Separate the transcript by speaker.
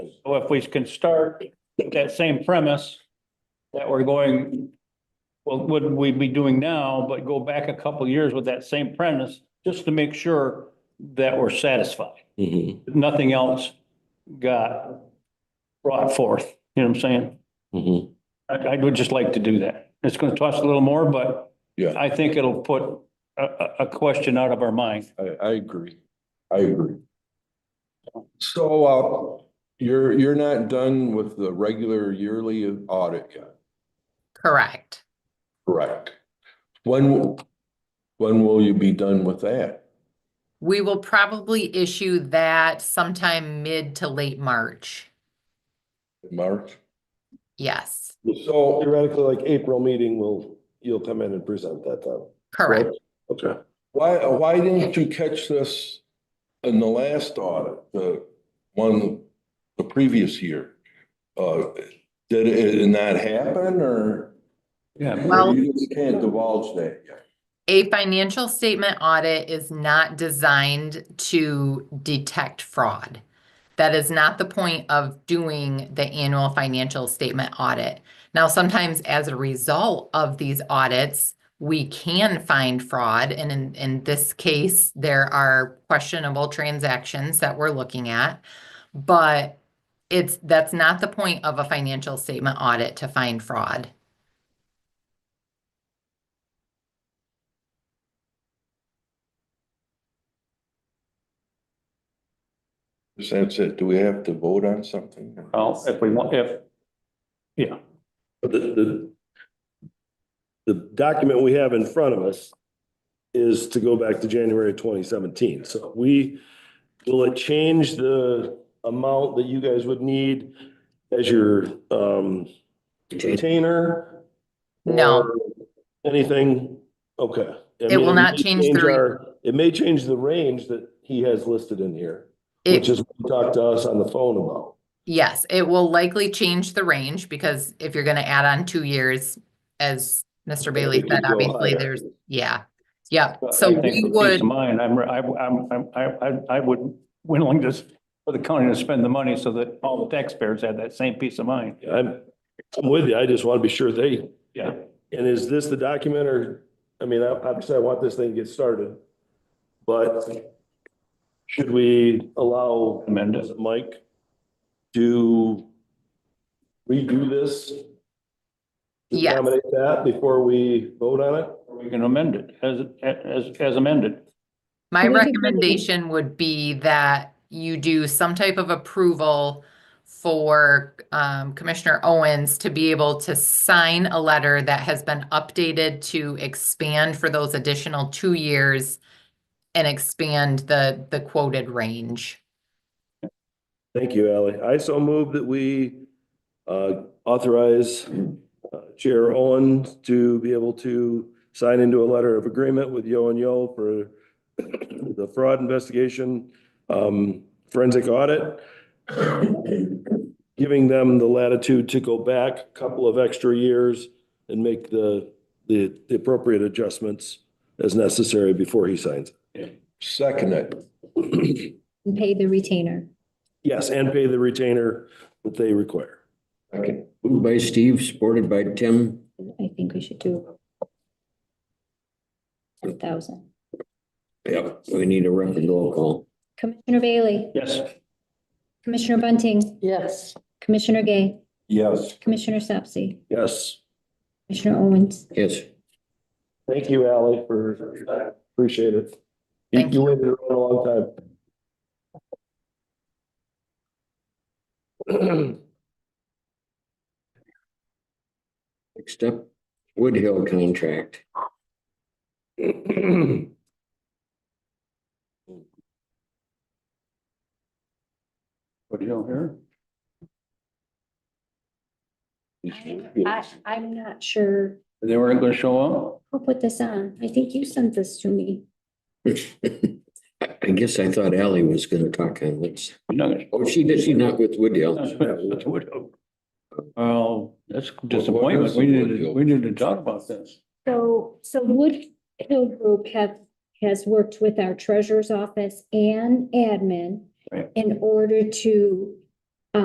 Speaker 1: So if we can start with that same premise that we're going, well, what we be doing now, but go back a couple of years with that same premise, just to make sure that we're satisfied. Mm-hmm,
Speaker 2: Mhm,
Speaker 1: Nothing else got brought forth, you know what I'm saying?
Speaker 2: mhm.
Speaker 1: I, I would just like to do that. It's gonna cost a little more, but
Speaker 2: Yeah.
Speaker 1: I think it'll put a, a, a question out of our mind.
Speaker 2: I, I agree. I agree.
Speaker 3: So, uh, you're, you're not done with the regular yearly audit yet,
Speaker 4: Correct.
Speaker 3: correct? When, when will you be done with that?
Speaker 4: We will probably issue that sometime mid to late March.
Speaker 3: March?
Speaker 4: Yes,
Speaker 3: So,
Speaker 5: Theoretically, like April meeting will, you'll come in and present that time.
Speaker 4: correct.
Speaker 5: Okay.
Speaker 3: why, why didn't you catch this in the last audit, the one, the previous year? Uh, did it not happen or?
Speaker 1: Yeah.
Speaker 4: Well-
Speaker 3: You just can't divulge that yet.
Speaker 4: A financial statement audit is not designed to detect fraud. That is not the point of doing the annual financial statement audit. Now, sometimes as a result of these audits, we can find fraud. And in, in this case, there are questionable transactions that we're looking at. But it's, that's not the point of a financial statement audit to find fraud.
Speaker 3: That's it. Do we have to vote on something?
Speaker 1: Well, if we want, if, yeah,
Speaker 5: But the, the, the document we have in front of us is to go back to January twenty seventeen. So we, will it change the amount that you guys would need as your, um, container?
Speaker 4: No.
Speaker 5: or Anything? Okay. I
Speaker 4: It
Speaker 5: mean,
Speaker 4: will
Speaker 5: may
Speaker 4: not change the re-
Speaker 5: our- It may change the range that he has listed in here,
Speaker 4: It-
Speaker 5: which is what he talked to us on the phone about.
Speaker 4: Yes, it will likely change the range because if you're gonna add on two years, as Mr. Bailey
Speaker 5: it
Speaker 4: said,
Speaker 5: could go
Speaker 4: obviously
Speaker 5: higher.
Speaker 4: there's, yeah. Yeah,
Speaker 1: But
Speaker 4: so
Speaker 1: I think
Speaker 4: we
Speaker 1: for Peace
Speaker 4: would,
Speaker 1: of mind, I'm, I, I'm, I'm- I, I, I would, willing to, s- for the county to spend the money so that all the taxpayers have that same peace of mind.
Speaker 5: I'm, I'm with you. I just want to be sure they,
Speaker 1: Yeah.
Speaker 5: and is this the document or, I mean, I- obviously I want this thing to get started. But should we allow
Speaker 1: Amend it.
Speaker 5: is it Mike to redo this? to
Speaker 4: Yes.
Speaker 5: Accommodate that before we vote on it?
Speaker 1: We can amend it as, as, as amended.
Speaker 4: my
Speaker 6: we could do-
Speaker 4: recommendation would be that you do some type of approval for um, Commissioner Owens to be able to sign a letter that has been updated to expand for those additional two years and expand the, the quoted range.
Speaker 5: Thank you, Ally. I so move that we uh, authorize uh, Chair Owen to be able to sign into a letter of agreement with Yo and Yo for the fraud investigation um, forensic audit, giving them the latitude to go back a couple of extra years and make the, the the appropriate adjustments as necessary before he signs.
Speaker 3: Second it.
Speaker 6: and pay the retainer.
Speaker 5: Yes, and pay the retainer that they require.
Speaker 2: Okay. Moved by Steve, supported by Tim.
Speaker 6: I think we should do three thousand.
Speaker 2: Yep, we need a record roll call.
Speaker 6: Commissioner Bailey,
Speaker 1: Yes.
Speaker 6: Commissioner Bunting. Yes. Commissioner Gay,
Speaker 3: Yes.
Speaker 6: Commissioner Sapsy,
Speaker 5: Yes.
Speaker 6: Commissioner Owens.
Speaker 2: Yes.
Speaker 5: Thank you, Ally, for, appreciate it. You-
Speaker 4: Thank
Speaker 5: You
Speaker 4: you.
Speaker 5: waited a long time.
Speaker 2: Next up, Woodhill contract.
Speaker 1: What do you know here?
Speaker 6: I, I'm not sure
Speaker 1: They weren't gonna show up?
Speaker 6: who put this on. I think you sent this to me.
Speaker 2: I I guess I thought Ally was gonna talk on this.
Speaker 1: No.
Speaker 2: Oh, she did, she's not with Woodhill.
Speaker 1: That's what- Well, that's disappointment. We need to, we need to talk about this.
Speaker 6: So, so Wood Hill Group have, has worked with our treasurer's office and admin
Speaker 1: Right.
Speaker 6: in order to